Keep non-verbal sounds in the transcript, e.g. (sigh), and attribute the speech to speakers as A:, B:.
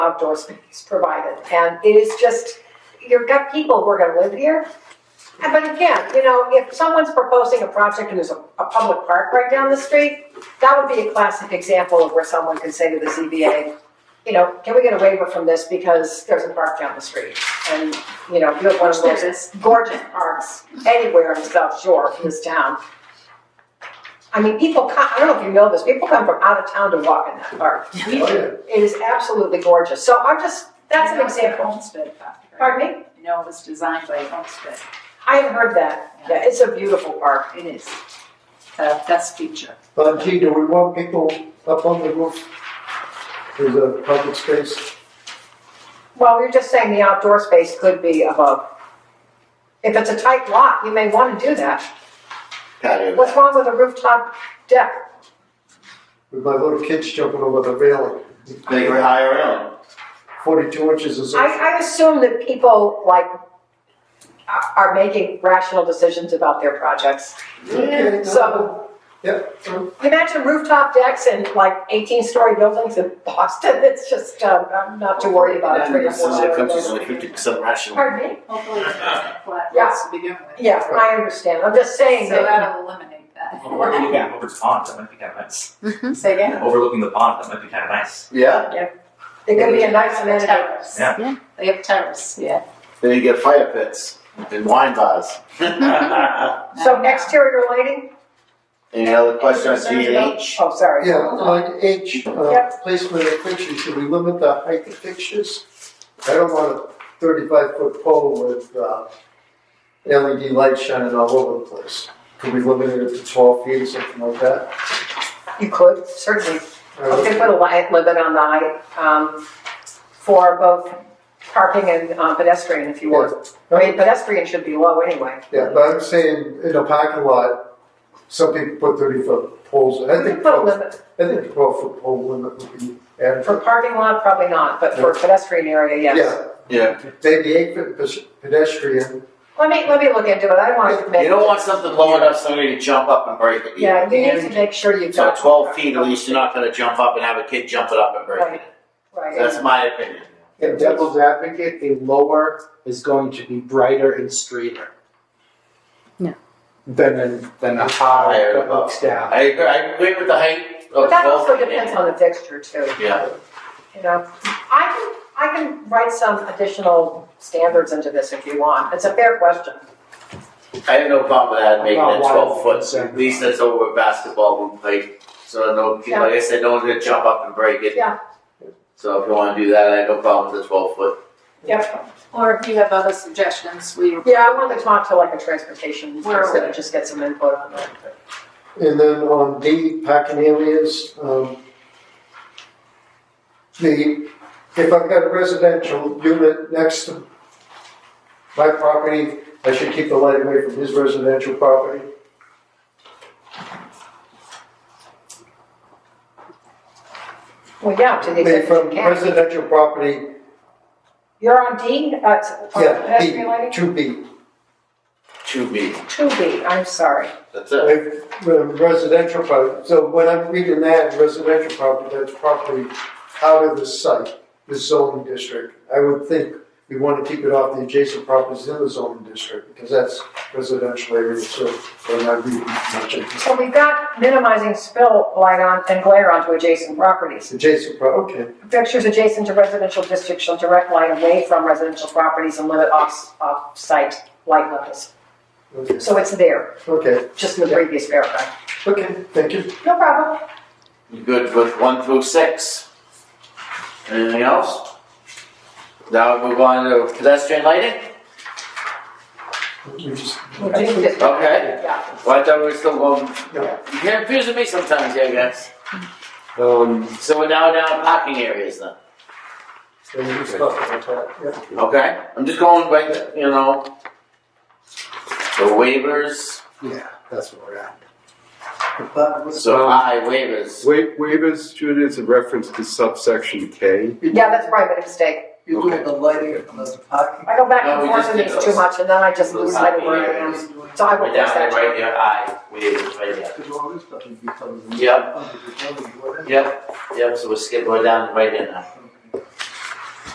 A: outdoor space provided. And it is just, you've got people who are gonna live here. And but again, you know, if someone's proposing a project and there's a, a public park right down the street, that would be a classic example of where someone could say to the ZBA, you know, can we get a waiver from this because there's a park down the street? And, you know, you have one of those gorgeous parks anywhere in South Shore of this town. I mean, people come, I don't know if you know this, people come from out of town to walk in that park.
B: We do.
A: It is absolutely gorgeous. So I'm just, that's an example.
B: Homestead Factory.
A: Pardon me?
B: You know, it was designed by Homestead.
A: I haven't heard that. Yeah, it's a beautiful park.
B: It is. Uh, that's feature.
C: But gee, do we want people up on the roof? There's a public space.
A: Well, you're just saying the outdoor space could be above. If it's a tight lot, you may want to do that.
D: patio.
A: What's wrong with a rooftop deck?
C: With my little kids jumping over the railing.
D: They were higher end.
C: Forty-two inches is.
A: I, I assume that people like are- are making rational decisions about their projects.
C: Okay, no.
A: So-
C: Yep,
A: Imagine rooftop decks in like eighteen-story buildings in Boston. (laughs) It's just, um, I'm not too worried about it.
D: And this is, it comes
A: Pardon
D: only fifty percent rational.
A: me?
B: Hopefully it's not flat
A: Yeah.
B: roofs to begin with.
A: Yeah, I understand. I'm just saying
B: So
A: that.
B: that'll eliminate that. Hmm?
E: Overlooking over the pond, that might be kind of nice.
B: Say again?
E: Overlooking the pond, that might be kind of
D: (laughs)
E: nice.
D: Yeah,
A: It could be a nice amenity.
B: Terrace.
E: Yeah.
B: They have terrace, yeah.
D: then you get fire pits and
A: (laughs)
D: wine bars.
A: So exterior lighting?
D: Any other questions on
B: Concerns about-
D: H?
A: Oh, sorry.
C: yeah, on H, uh,
A: Yep.
C: placement of fixtures, should we limit the height of fixtures? I don't want a thirty-five foot pole with, uh, LED lights shining all over the place. Could we limit it to twelve feet or something like that?
A: You could, certainly.
C: I don't-
A: Okay, put a light limit on the height, um, for both parking and uh, pedestrian, if you would. I mean, pedestrian should be low anyway.
C: Yeah, but I'm saying in a parking lot, some people put thirty foot poles, in. I
A: We
C: think,
A: could put a
C: twelve-
A: limit,
C: I think twelve foot pole limit would be adequate.
A: for parking lot, probably not, but for pedestrian area, yes.
D: Yeah,
C: Yeah, maybe eight foot pes- pedestrian,
A: Let me, let me look into it, I don't want to commit.
D: you don't want something low enough somebody to jump up and break it.
A: Yeah, you need to make sure you've
D: So
A: got.
D: twelve feet at least, you're not gonna jump up and have a kid jump it up and break it.
A: Right,
D: That's my opinion.
F: And devil's advocate, a lower is going to be brighter and straighter.
G: No.
F: Than a, than a
D: Higher
F: high that
D: above.
F: looks down.
D: I agree, I agree with the height
A: but
D: of
A: that
D: twelve
A: also
D: feet.
A: depends on the fixture too.
D: Yeah.
A: You know, I can, I can write some additional standards into this if you want, it's a fair question.
D: I have no problem with that, making
F: About
D: it
F: wide
D: twelve foot,
F: concern.
D: at least that's over a basketball hoop height. So no,
A: Yeah.
D: like I said, no one's gonna jump up and break it.
A: Yeah.
D: So if you wanna do that, I have no problem with the twelve foot.
A: Yep.
B: Or if you have other suggestions, we.
A: Yeah, I want to talk to like a transportation
B: Where are
A: person and just get some input on that.
C: and then on D, parking areas, um, the, if I've got a residential unit next to my property, I should keep the light away from his residential property.
A: Well, yeah, to the
C: I mean,
A: extent that
C: from
A: you can.
C: residential property
A: You're on D, uh, it's- on
C: Yeah, B,
A: pedestrian lighting?
C: two B.
D: Two B,
A: Two B, I'm sorry.
D: that's it.
C: If, um, Residential property, so when I'm reading that, residential property, that's property out of the site, the zoning district. I would think we want to keep it off the adjacent properties in the zoning district, because that's residential area, so when I read much of
A: So we've got minimizing spill light on and glare onto adjacent properties.
C: it's adjacent property, okay.
A: Fixtures adjacent to residential districts shall direct light away from residential properties and limit off, off-site light levels.
C: Okay,
A: So it's there,
C: okay,
A: just in the previous paragraph.
C: okay, thank you.
A: No problem.
D: You Good with one through six. Anything else? Now we move on to pedestrian lighting?
C: We Oh, just-
A: We'll just-
D: Okay.
A: Yeah.
D: Well, I thought we were still going,
C: No.
D: you can confuse me sometimes, yeah, guys. Um, so we're now down to parking areas then,
C: so we just talked about that, yeah.
D: okay? I'm just going by, the- you know, the waivers,
F: Yeah, that's what we're at.
B: uh,
D: so I waivers.
H: Wa- Waivers, Judy, is a reference to subsection K.
A: Yeah, that's probably a mistake.
B: You're
H: doing
B: the lighting on the parking.
A: I go back
D: No,
A: and
D: we
A: forth
D: just
A: and
D: did
A: it's
D: those.
A: too much, and then I just
D: Those
A: lose sight of
D: parking
A: where I am.
D: areas.
A: So I will
D: Right
A: fix
D: down there,
A: that.
D: right there, I waivers, right there.
C: Because all this stuff would be covered
D: Yep, yep, yep, so we're skipping, we're down right here now.